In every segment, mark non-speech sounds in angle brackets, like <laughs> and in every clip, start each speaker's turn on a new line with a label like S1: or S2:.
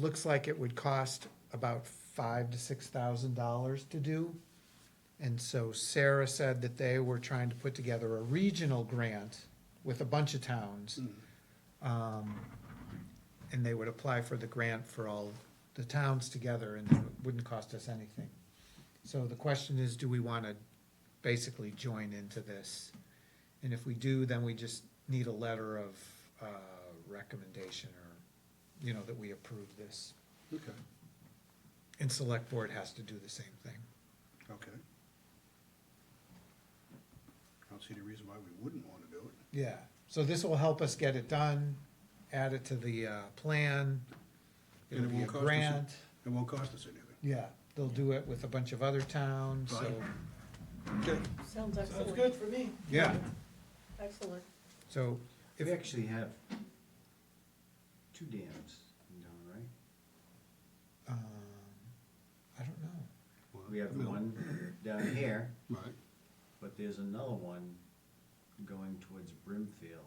S1: looks like it would cost about five to six thousand dollars to do. And so Sarah said that they were trying to put together a regional grant with a bunch of towns. Um, And they would apply for the grant for all the towns together and it wouldn't cost us anything. So the question is, do we wanna basically join into this? And if we do, then we just need a letter of, uh, recommendation or, you know, that we approve this.
S2: Okay,
S1: And select board has to do the same thing.
S2: okay. I don't see any reason why we wouldn't want to do it.
S1: Yeah, so this will help us get it done, add it to the, uh, plan.
S2: And it
S1: It'll be a
S2: won't cost us a-
S1: grant.
S2: It won't cost us anything.
S1: Yeah, they'll do it with a bunch of other towns, so,
S2: Right. Okay.
S3: Sounds excellent.
S4: for me.
S1: yeah,
S3: Excellent.
S1: so
S5: We
S1: if,
S5: actually have two dams in town, right?
S1: um, I don't know.
S5: We have the
S2: Well,
S5: one down here,
S2: Right,
S5: but there's another one going towards Brimfield.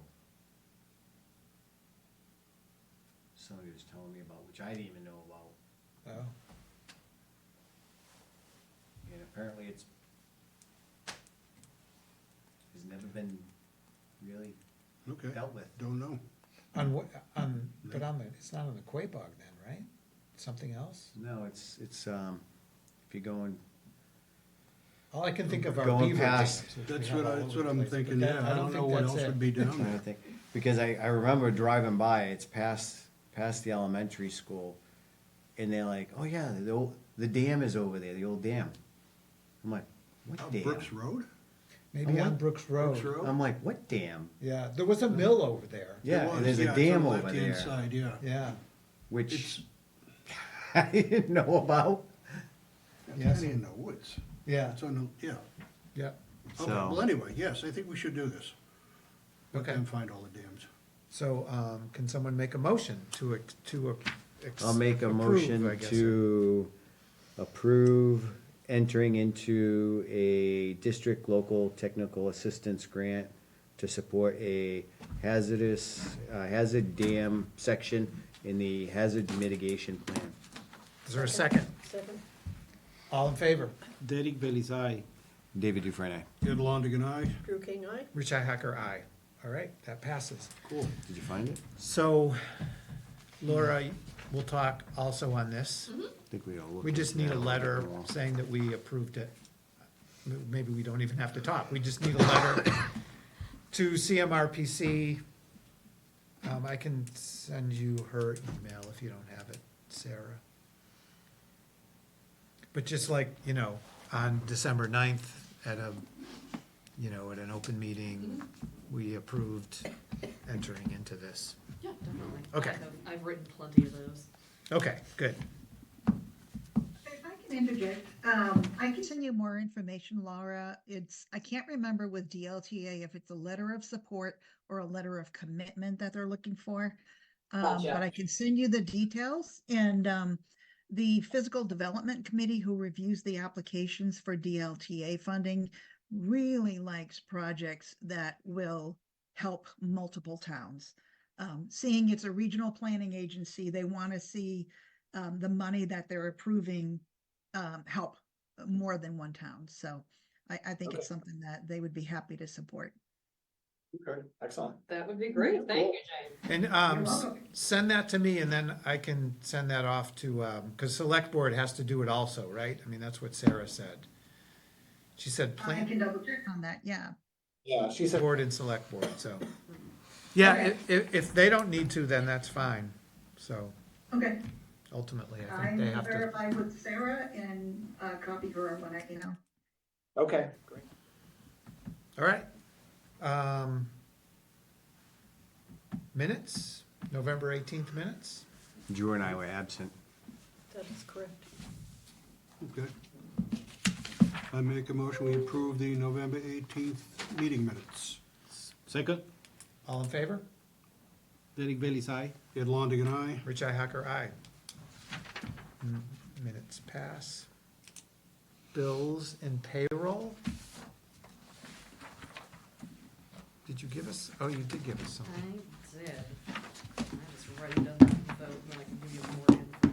S5: Somebody was telling me about, which I didn't even know about,
S1: Oh,
S5: and apparently it's has never been really
S2: okay,
S5: dealt with.
S2: don't know.
S1: on what, on, but on the, it's not on the Quabog then, right? Something else?
S5: No, it's, it's, um, if you're going,
S1: All I can think of are
S5: Going
S1: beaver dams.
S5: past-
S1: which we
S2: That's
S1: have
S2: what
S1: all
S2: I,
S1: over
S2: that's
S1: the
S2: what I'm
S1: place, but
S2: thinking,
S1: that-
S2: yeah, I don't
S1: think
S2: know what
S1: that's
S2: else
S1: it.
S2: would be down
S5: trying to
S2: there.
S5: think, because I, I remember driving by, it's past, past the elementary school, and they're like, oh yeah, the old, the dam is over there, the old dam. I'm like,
S2: Uh,
S5: what
S2: Brooks
S5: dam?
S2: Road?
S1: Maybe on
S5: What?
S1: Brooks
S2: Brooks
S1: Road.
S2: Road?
S5: I'm like, what dam?
S1: Yeah, there was a mill over there,
S2: It
S5: Mm-hmm. Yeah,
S2: was,
S5: and there's
S2: yeah,
S5: a
S2: it's on
S5: dam
S2: the
S5: over
S2: left-hand
S5: there,
S2: Side, yeah.
S1: yeah.
S5: which <laughs> I didn't know
S2: Oh,
S5: about,
S1: Yes.
S2: That's kinda in the woods.
S1: Yeah,
S2: It's on the, yeah.
S1: yeah,
S2: Okay,
S5: So-
S2: well, anyway, yes, I think we should do this. Let
S1: Okay.
S2: them find all the dams.
S1: so, um, can someone make a motion to, ex- to? ex-
S5: I'll make a
S1: approve, I
S5: motion
S1: guess.
S5: to approve entering into a district local technical assistance grant to support a hazardous, uh, hazard dam section in the hazard mitigation plan.
S1: Is there a second?
S3: Second?
S1: All in favor?
S4: Derek Bailey's eye.
S5: David Dufresne,
S2: Ed Longigan, aye.
S3: Drew King, aye?
S1: Richi Hacker, aye. All right, that passes.
S2: Cool.
S5: did you find it?
S1: So Laura, we'll talk also on this.
S5: I think we all looked.
S1: We just need a
S5: at that.
S1: letter saying that we approved it. M- Maybe we don't even have to talk. We just need a letter to CMRPC. Um, I can send you her email if you don't have it, Sarah. But just like, you know, on December ninth at a, you know, at an open meeting, we approved entering into this.
S6: Yeah, definitely.
S1: Okay.
S6: I've- I've written plenty of those.
S1: Okay, good.
S7: If I can interject, um, I can send you more information, Laura. It's, I can't remember with DLTA if it's a letter of support or a letter of commitment that they're looking for. Um,
S6: Gotcha.
S7: but I can send you the details and, um, the Physical Development Committee who reviews the applications for DLTA funding really likes projects that will help multiple towns. Um, seeing it's a regional planning agency, they want to see, um, the money that they're approving, um, help more than one town. So I, I think it's something that they would be happy to support.
S5: Okay, excellent.
S6: That would be great. Thank you, Jane.
S1: And um,
S6: You're
S1: s-
S6: welcome.
S1: send that to me and then I can send that off to, because select board has to do it also, right? I mean, that's what Sarah said. She said
S7: I
S1: plan,
S7: can double check on that, yeah.
S1: yeah, she said board and select board, so. Yeah,
S7: Okay.
S1: if, if they don't need to, then that's fine. So
S7: Okay,
S1: ultimately, I
S7: I
S1: think they
S7: will
S1: have to.
S7: verify with Sarah and, uh, copy her when I, you know.
S1: Okay. All right. Um, Minutes, November 18th minutes?
S5: Drew and I were absent.
S3: That is correct.
S2: Okay. I make a motion, we approve the November eighteenth meeting minutes.
S4: Second,
S1: All in favor?
S4: Derek Bailey's eye.
S2: Ed Longigan, aye.
S1: Rich I Hacker, aye. M- Minutes pass. Bills and payroll? Did you give us, oh, you did give us
S6: I
S1: something.
S6: did. I was ready to vote, but I can give you more